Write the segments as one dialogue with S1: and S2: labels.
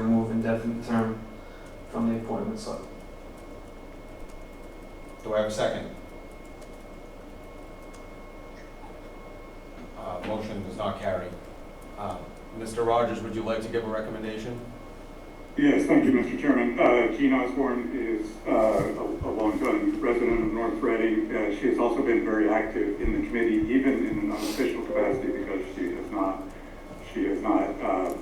S1: indefinite term from the appointment slip.
S2: Do I have a second? Uh, Motion does not carry. Uh, Mr. Rogers, would you like to give a recommendation?
S3: Yes, thank you, Mr. Chairman. Uh, Jean Osborne is uh, a a longtime resident of North Reading. Uh, She has also been very active in the committee, even in an unofficial capacity, because she has not, she has not uh,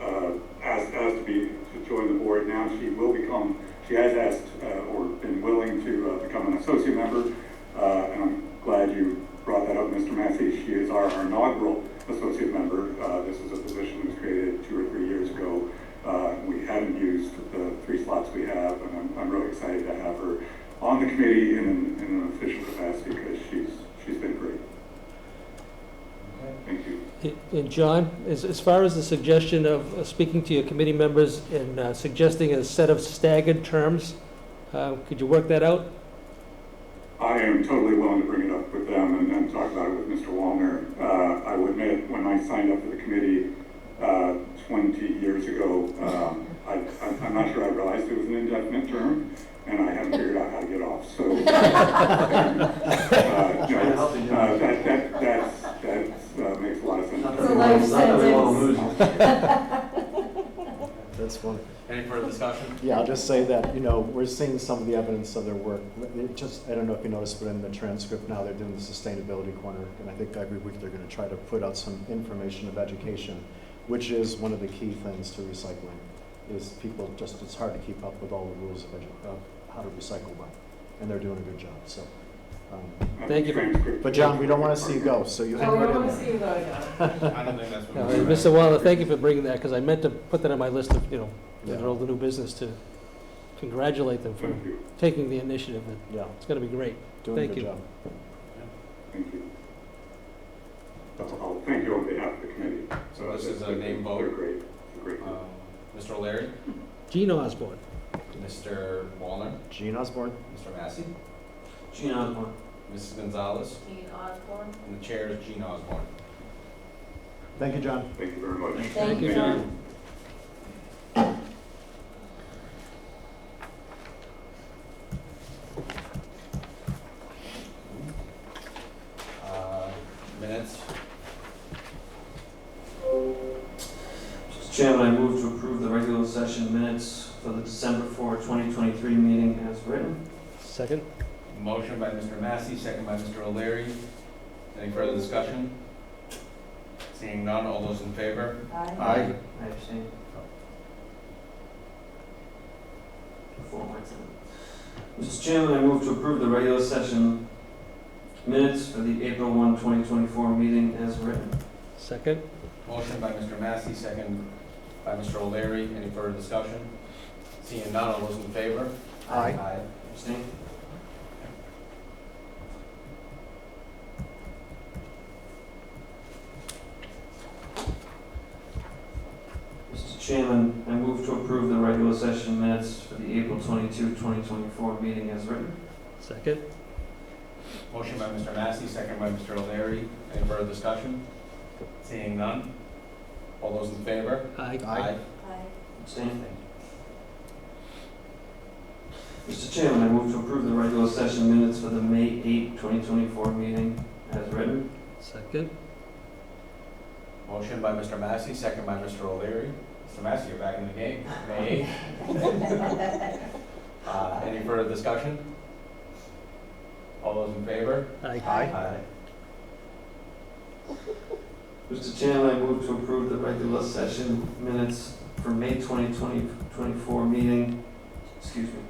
S3: uh, asked, asked to be, to join the board. Now she will become, she has asked uh, or been willing to uh, become an associate member. Uh, And I'm glad you brought that up, Mr. Massey. She is our inaugural associate member. Uh, This is a position that was created two or three years ago. Uh, We haven't used the three slots we have, and I'm, I'm really excited to have her on the committee in an, in an official capacity because she's, she's been great. Thank you.
S4: And John, as, as far as the suggestion of uh, speaking to your committee members and uh, suggesting a set of staggered terms, uh, could you work that out?
S3: I am totally willing to bring it up with them and then talk about it with Mr. Wallner. Uh, I would admit, when I signed up for the committee, uh, twenty years ago, um, I, I'm- I'm not sure I realized it was an indefinite term, and I haven't figured out how to get off, so. um, uh,
S1: Trying to help you, John.
S3: uh, That, that, that's, that's, uh, makes a lot of sense.
S1: Not
S5: It's
S1: that
S5: a
S1: we
S5: life
S1: want, not that we want to lose
S5: sentence.
S1: him.
S6: That's one.
S2: Any further discussion?
S6: Yeah, I'll just say that, you know, we're seeing some of the evidence of their work. It just, I don't know if you noticed, but in the transcript now, they're doing the sustainability corner. And I think every week they're gonna try to put out some information of education, which is one of the key things to recycling, is people just, it's hard to keep up with all the rules of edu- of how to recycle well. And they're doing a good job, so. um,
S4: Thank you.
S3: Transcript.
S6: But John, we don't wanna see you go, so you hang
S5: Oh, we
S6: right
S5: don't
S6: in
S5: want to
S6: there.
S5: see you go again.
S2: I don't think that's
S4: Uh,
S2: what we're doing.
S4: Mr. Waller, thank you for bringing that, because I meant to put that on my list of, you know,
S6: Yeah.
S4: all the new business to congratulate them for
S3: Thank you,
S4: taking the initiative. and
S6: Yeah,
S4: It's gonna be great.
S6: doing a
S4: Thank
S6: good
S4: you.
S6: job.
S3: thank you. That's all. Thank you on behalf of the committee.
S2: So this is a name
S3: They're
S2: vote.
S3: great, They're great.
S2: Um, Mr. O'Leary,
S4: Gene Osborne,
S2: Mr. Wallner,
S6: Gene Osborne?
S2: Mr. Massey,
S1: Gene Osborne.
S2: Mrs. Gonzalez,
S5: Jean Osborne.
S2: and the chair is Gene Osborne.
S6: Thank you, John.
S3: Thank you very much.
S5: Thank
S4: you,
S5: John.
S2: Uh, Minutes,
S1: Mr. Chairman, I move to approve the regular session minutes for the December 4, 2023 meeting as written.
S4: second.
S2: motion by Mr. Massey, second by Mr. O'Leary. Any further discussion? Seeing none, all those in favor? Aye.
S1: I abstain. Before my time. Mr. Chairman, I move to approve the regular session minutes for the April 1, 2024 meeting as written.
S4: Second.
S2: Motion by Mr. Massey, second by Mr. O'Leary. Any further discussion? Seeing none, all those in favor?
S6: Aye.
S2: Aye.
S1: Abstain. Mr. Chairman, I move to approve the regular session minutes for the April 22, 2024 meeting as written.
S4: Second.
S2: Motion by Mr. Massey, second by Mr. O'Leary. Any further discussion? Seeing none, all those in favor?
S4: Aye.
S6: Aye.
S5: Aye.
S1: Abstain. Mr. Chairman, I move to approve the regular session minutes for the May 8, 2024 meeting as written.
S4: Second.
S2: Motion by Mr. Massey, second by Mr. O'Leary. Mr. Massey, you're back in the game. May 8th. Uh, Any further discussion? All those in favor?
S4: Aye.
S6: Aye.
S1: Mr. Chairman, I move to approve the regular session minutes for May 20, 2024 meeting, excuse me,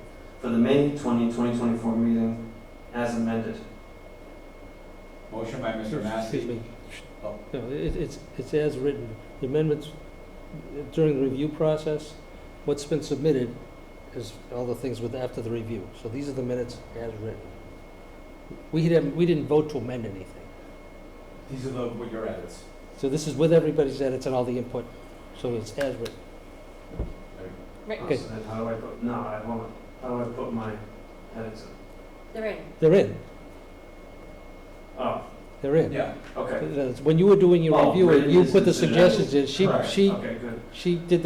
S1: for the May 20, 2024 meeting as amended.
S2: Motion by Mr.
S4: Excuse
S2: Massey.
S4: me.
S2: Oh.
S4: No, it- it's, it's as written. The amendments during the review process, what's been submitted is all the things with, after the review. So these are the minutes as written. We didn't, we didn't vote to amend anything.
S2: These are the, with your edits.
S4: So this is with everybody's edits and all the input, so it's as written. Okay.
S1: And How do I put, no, I won't, how do I put my edits in?
S5: They're in.
S4: They're in,
S1: Oh,
S4: they're in.
S2: Yeah,
S1: okay.
S4: That's- When you were doing your
S1: Oh,
S4: review, and you
S1: written
S4: put the
S1: is- is-
S4: suggestions in, she,
S1: Correct.
S4: she,
S1: Okay, good.
S4: she did